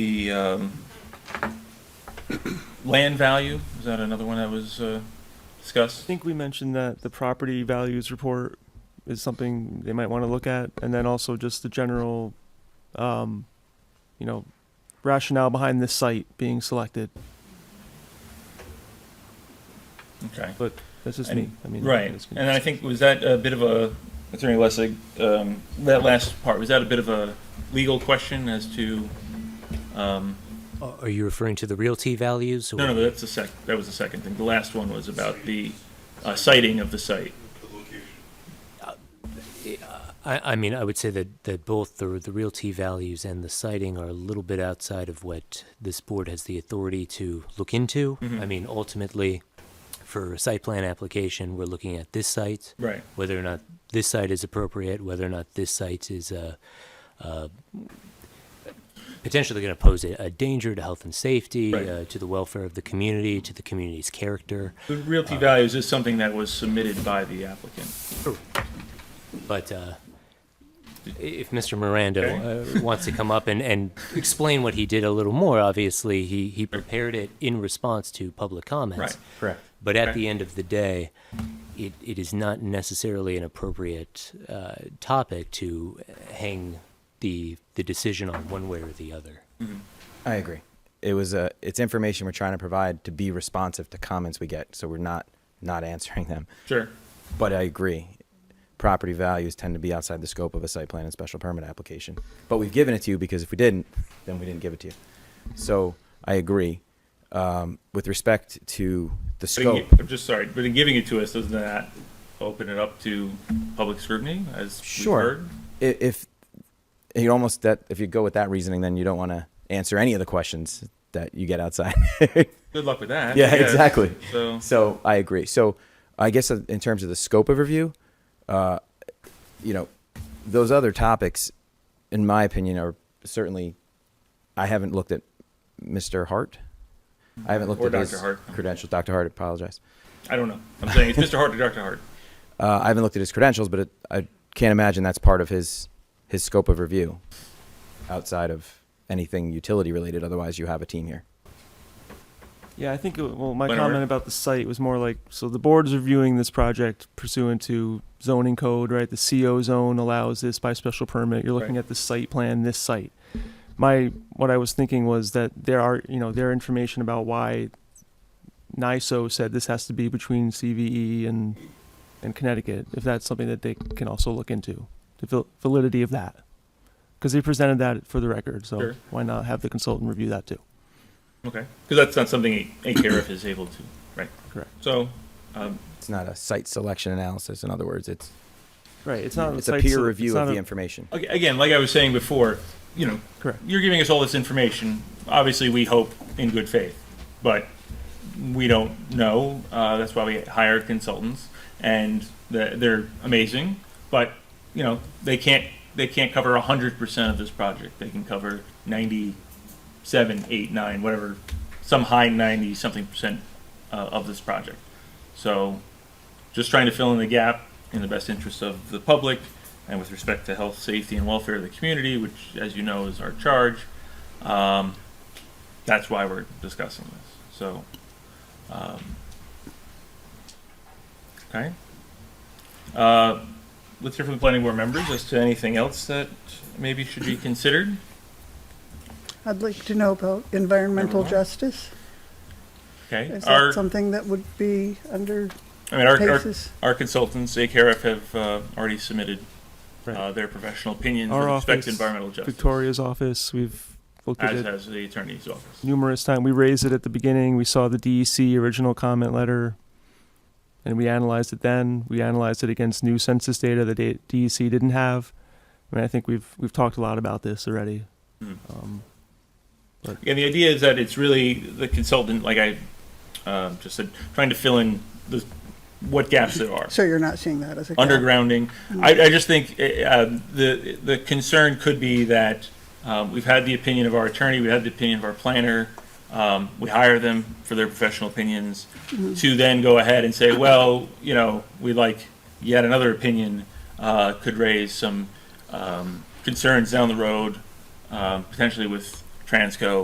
the um, land value, is that another one that was uh, I discussed? think we mentioned that the property values report is something they might want to look at, and then also just the general, um, you know, rationale behind this site being selected. Okay. That's just And- me. I mean, Right, it's- and then I think, was that a bit of a, Attorney Lessig, um, that last part, was that a bit of a legal question as to, um, Are are you referring to the realty values? no, or- no, that's the sec, that was the second thing. The last one was about the uh, sighting of the site. I, I mean, I would say that, that both the, the realty values and the siting are a little bit outside of what this board has the authority to look into. Mm-hmm. I mean, ultimately, for a site plan application, we're looking at this site, Right. whether or not this site is appropriate, whether or not this site is uh, uh, potentially going to pose a, a danger to health and safety, Right. uh, to the welfare of the community, to the community's character. The realty values is something that was submitted by the applicant. But uh, i- if Mr. Miranda uh, wants to come up and, and explain what he did a little more, obviously he, he prepared it in response to public comments. Right. Correct. But at Right. the end of the day, it, it is not necessarily an appropriate uh, topic to hang the the decision on one way or the other. I agree. It was a. It's information we're trying to provide to be responsive to comments we get, so we're not not answering them. Sure. But I agree. Property values tend to be outside the scope of a site plan and special permit application. But we've given it to you because if we didn't, then we didn't give it to you. So I agree. Um, with respect to the But in scope, gi- I'm just sorry, but in giving it to us, doesn't that open it up to public scrutiny as we've Sure. heard? i- if you almost that if you go with that reasoning, then you don't want to answer any of the questions that you get outside. Good luck with that. I yeah, guess. exactly. So, So I agree. So I guess uh, in terms of the scope of review, uh, you know, those other topics, in my opinion, are certainly. I haven't looked at Mr. Hart. I haven't looked Or at his Dr. Hart. credentials. Dr. Hart, apologize. I don't know. I'm saying it's Mr. Hart to Dr. Hart. Uh, I haven't looked at his credentials, but it, I can't imagine that's part of his his scope of review, outside of anything utility related. Otherwise, you have a team here. Yeah, I think, it- well, my Whatever. comment about the site was more like, so the board's reviewing this project pursuant to zoning code, right? The CO zone allows this by special permit. You're looking Right. at the site plan, this site. My, what I was thinking was that there are, you know, their information about why NISO said this has to be between CVE and, and Connecticut, if that's something that they can also look into, the val- validity of that. Because they presented that for the record, so Sure. why not have the consultant review that too? Okay. Because that's not something a, a sheriff is able to, right? Correct. So, um, It's not a site selection analysis. In other words, it's Right, it's not. it's a site peer sele- review it's not of the a- information. ag- again, like I was saying before, you know, Correct. you're giving us all this information. Obviously, we hope in good faith, but we don't know. Uh, that's why we hire consultants, and the- they're amazing. But you know, they can't they can't cover hundred percent of this project. They can cover ninety seven, eight, nine, whatever, some high ninety something percent uh, of this project. So, just trying to fill in the gap in the best interest of the public and with respect to health, safety, and welfare of the community, which, as you know, is our charge. Um, that's why we're discussing this. So, um, okay. Uh, let's hear from the planning board members as to anything else that maybe should be considered. I'd like to know about environmental Nevermind. justice. Okay. Is Our, that something that would be under I mean, our, our, cases? our consultants, AKRF, have uh, already submitted uh, Right. their professional opinions Our with respect to office, environmental justice, Victoria's office, we've looked at as it has the attorney's office. numerous times. We raised it at the beginning. We saw the DEC original comment letter, and we analyzed it then. We analyzed it against new census data that D- DEC didn't have. I mean, I think we've we've talked a lot about this already. Mhm. Um, Again, the idea is that it's really the consultant, like I um, just said, trying to fill in the, what gaps there are. So you're not seeing that as a. gap. Undergrounding. I, I just think eh, um, the, the concern could be that um, we've had the opinion of our attorney, we had the opinion of our planner, um, we hire them for their professional opinions, to then go ahead and say, well, you know, we like yet another opinion uh, could raise some um, concerns down the road, um, potentially with Transco